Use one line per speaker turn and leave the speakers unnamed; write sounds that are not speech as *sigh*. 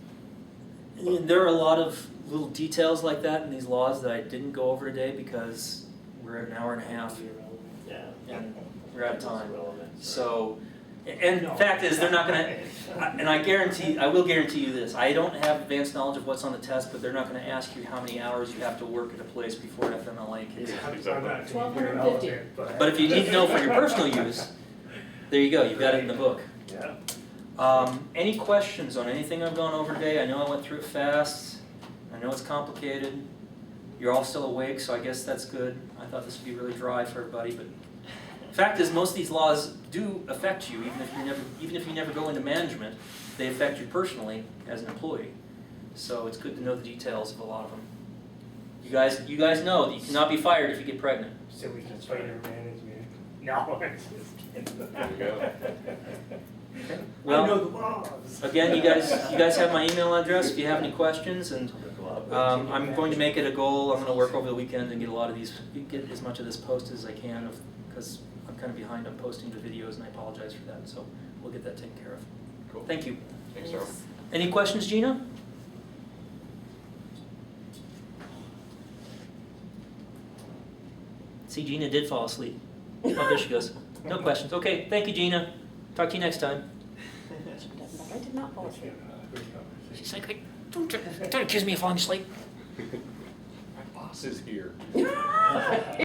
There are a lot of little details like that in these laws that I didn't go over today because we're at an hour and a half
Yeah.
and we're out of time.
Relevant.
So, and the fact is, they're not gonna,
*laughs*
I- and I guarantee, I will guarantee you this, I don't have advanced knowledge of what's on the test, but they're not gonna ask you how many hours you have to work at a place before FMLA kicks in. But if you need to know for your personal use, there you go, you've got it in the book.
Yeah.
Um, any questions on anything I've gone over today? I know I went through it fast. I know it's complicated. You're all still awake, so I guess that's good. I thought this would be really dry for everybody, but fact is, most of these laws do affect you, even if you never, even if you never go into management, they affect you personally as an employee. So it's good to know the details of a lot of them. You guys, you guys know that you cannot be fired if you get pregnant.
So we can try to manage it. No, *laughs* I'm just kidding.
There
*laughs*
you go.
Well-
I know the laws.
Again, you guys, you guys have my email address if you have any questions, and Um, I'm going to make it a goal, I'm gonna work over the weekend and get a lot of these, get as much of this posted as I can of, cause I'm kinda behind on posting the videos and I apologize for that, so we'll get that taken care of.
Cool.
Thank you.
Thanks, Darrell.
Any questions, Gina? See, Gina did fall asleep. Oh, there she goes. No questions. Okay, thank you, Gina. Talk to you next time.
I did not fall asleep.
She's like, don't, don't accuse me of falling asleep. *laughs*
My boss is here.